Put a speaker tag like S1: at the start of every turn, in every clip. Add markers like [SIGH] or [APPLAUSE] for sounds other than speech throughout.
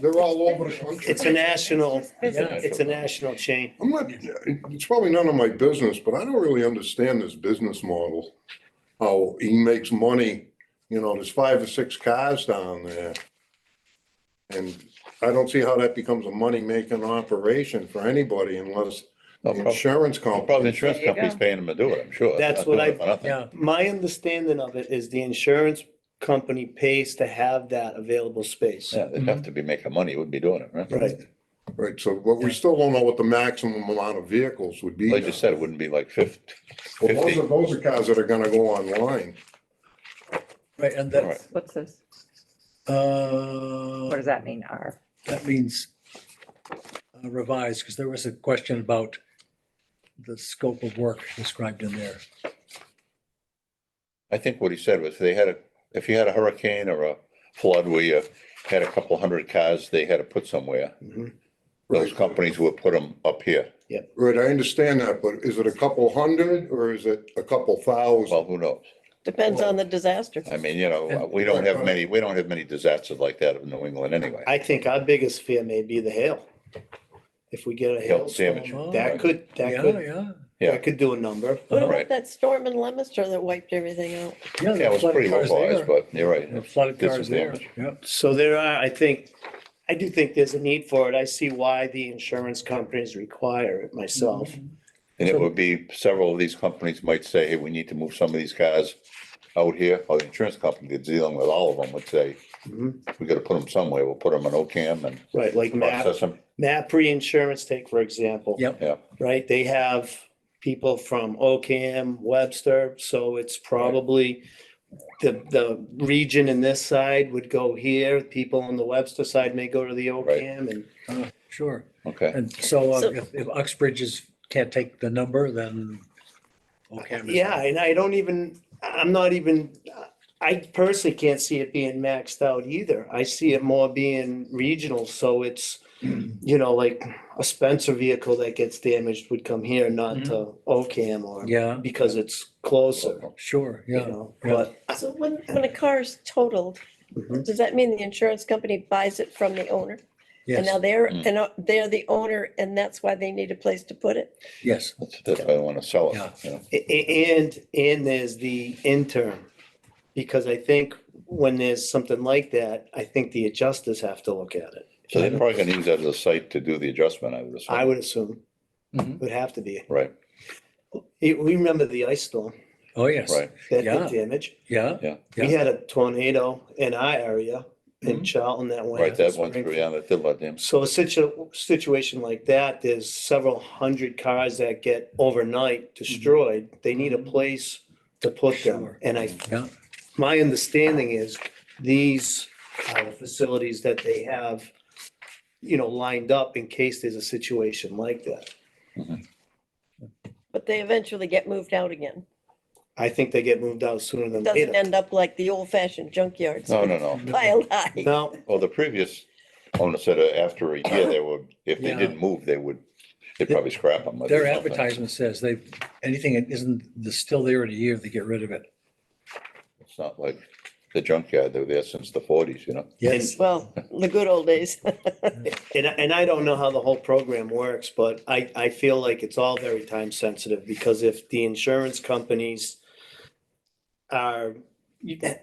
S1: They're all over the country.
S2: It's a national,
S3: Yeah.
S2: it's a national chain.
S1: I'm not, it's probably none of my business, but I don't really understand this business model. How he makes money, you know, there's five or six cars down there. And I don't see how that becomes a money-making operation for anybody unless
S4: No,
S1: the
S4: prob-
S1: insurance
S4: well, Oh, Probably
S1: company.
S4: the insurance
S3: There you
S4: company's
S3: go.
S4: paying them to do it, I'm sure. They're
S2: That's
S4: not
S2: what
S4: doing
S2: I-
S4: it for nothing.
S5: Yeah,
S2: My understanding of it is the insurance company pays to have that available space.
S4: Yeah, they'd have to be making money, wouldn't be doing it, right?
S2: Right.
S1: Right, so, but we still don't know what the maximum amount of vehicles would be.
S4: They just said it wouldn't be like fifty.
S1: Well, those
S4: 50.
S1: are, those are cars that are gonna go online.
S5: right, and
S4: All right.
S5: that's,
S3: What's this?
S5: uh,
S3: What does that mean, R?
S5: that means uh, revised, because there was a question about the scope of work described in there.
S4: I think what he said was they had a, if you had a hurricane or a flood where you had a couple hundred cars they had to put somewhere,
S2: Mm-hmm.
S4: those
S1: Right.
S4: companies would put them up here.
S1: Right, I understand that, but is it a couple hundred or is it a couple thousand?
S4: Well, who knows?
S6: Depends on the disaster.
S4: I mean, you know,
S5: And-
S4: we don't have many, we don't have many disasters like that in New England anyway.
S2: I think our biggest fear may be the hail. If we get a
S4: Hail
S2: hailstorm,
S4: damage.
S2: that could, that
S5: Yeah,
S2: could,
S5: yeah.
S4: Yeah.
S2: that could do a number.
S6: What
S4: Right.
S6: about that storm in Leominster that wiped everything out?
S4: Yeah, it was pretty localized, but you're right.
S5: The flooded
S4: Did some
S5: cars there,
S4: damage.
S5: yeah.
S2: So there are, I think, I do think there's a need for it. I see why the insurance companies require it myself.
S4: And it would be, several of these companies might say, hey, we need to move some of these cars out here, or the insurance company that's dealing with all of them would say,
S2: Mhm.
S4: we gotta put them somewhere, we'll put them in OCAM and
S2: Right, like MAP,
S4: process them.
S2: MAP reinsurance take, for example.
S5: Yep.
S2: right? They have people from Ocam, Webster, so it's probably the, the region in this side would go here, people on the Webster side may go to the Ocam and
S5: Uh, Sure.
S4: Okay,
S5: And so uh,
S6: So-
S5: if if Uxbridge is, can't take the number, then. Ocam is-
S2: Yeah, and I don't even, I'm not even, I personally can't see it being maxed out either. I see it more being regional, so it's, you know, like a Spencer vehicle that gets damaged would come here, not to Ocam or
S5: Yeah,
S2: because it's closer,
S5: sure,
S2: you
S5: yeah.
S2: know, but
S6: So when, when a car is totaled,
S2: Mhm.
S6: does that mean the insurance company buys it from the owner? And now
S5: Yes,
S6: they're,
S4: Mm.
S6: and uh, they're the owner and that's why they need a place to put it?
S5: yes.
S4: that's, that's why I wanna sell
S5: Yeah.
S4: it, you know,
S2: A- a- And, and there's the intern, because I think when there's something like that, I think the adjusters have to look at it.
S4: so they're probably gonna use that as a site to do the adjustment, I would assume.
S2: I would assume,
S5: Mhm.
S2: would have to be.
S4: Right,
S2: You- We remember the ice storm,
S5: Oh, yes.
S4: right,
S2: that
S5: Yeah.
S2: did damage.
S5: Yeah,
S2: We
S5: Yeah.
S2: had a tornado in our area in
S5: Mhm.
S2: Charlton that went.
S4: right, that
S2: one.
S4: one, through, yeah, that did let them,
S2: So a situ- situation like that, there's several hundred cars that get overnight destroyed. They need a place to put them.
S5: Mm-hmm. Sure. Mm-hmm.
S2: And I
S5: yeah.
S2: my understanding is these uh, facilities that they have, you know, lined up in case there's a situation like that.
S6: But they eventually get moved out again.
S2: I think they get moved out sooner than
S6: Doesn't
S2: later.
S6: end up like the old fashioned junkyards
S4: no, no,
S6: [LAUGHS]
S4: no.
S6: piled high.
S2: No,
S4: Well, the previous owner said uh, after a year, they would, if they
S5: Yeah.
S4: didn't move, they would, they'd probably scrap them.
S5: Their advertisement says they, anything that isn't, that's still there in a year, they get rid of it.
S4: It's not like the junkyard, they were there since the forties, you know?
S5: Yes,
S6: Well, the good old days.
S2: and, and I don't know how the whole program works, but I, I feel like it's all very time sensitive because if the insurance companies are,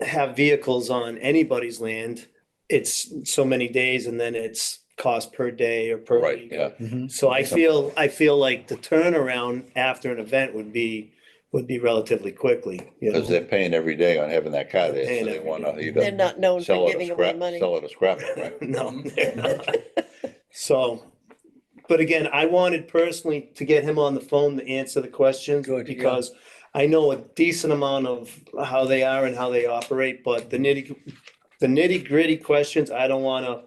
S2: have vehicles on anybody's land, it's so many days and then it's cost per day or per
S4: Right,
S2: week or
S4: yeah.
S5: Mhm.
S2: So I feel, I feel like the turnaround after an event would be, would be relatively quickly. you know.
S4: Because they're paying every day on having that car there,
S2: Paying
S4: so they
S2: every
S4: wanna
S6: [LAUGHS] They're
S4: either
S6: not known
S4: sell
S6: for
S4: it
S6: giving
S4: or
S6: away
S4: scrap,
S6: money.
S4: sell it or scrap it,
S2: [LAUGHS]
S4: right?
S2: No, they're not. So, but again, I wanted personally to get him on the phone to answer the questions
S5: Good, yeah.
S2: because I know a decent amount of how they are and how they operate, but the nitty, the nitty gritty questions, I don't want to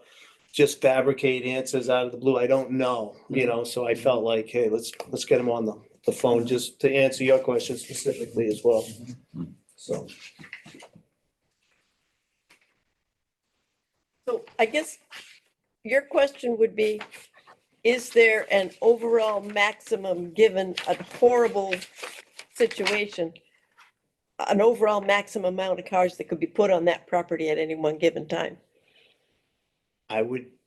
S2: just fabricate answers out of the blue. I don't know, you know, so
S5: Mm-hmm.
S2: I felt like, hey, let's, let's get him on the, the phone just to answer your questions specifically as well.
S5: Mm-hmm.
S2: So.
S6: So I guess your question would be, is there an overall maximum, given a horrible situation? An overall maximum amount of cars that could be put on that property at any one given time?
S2: I would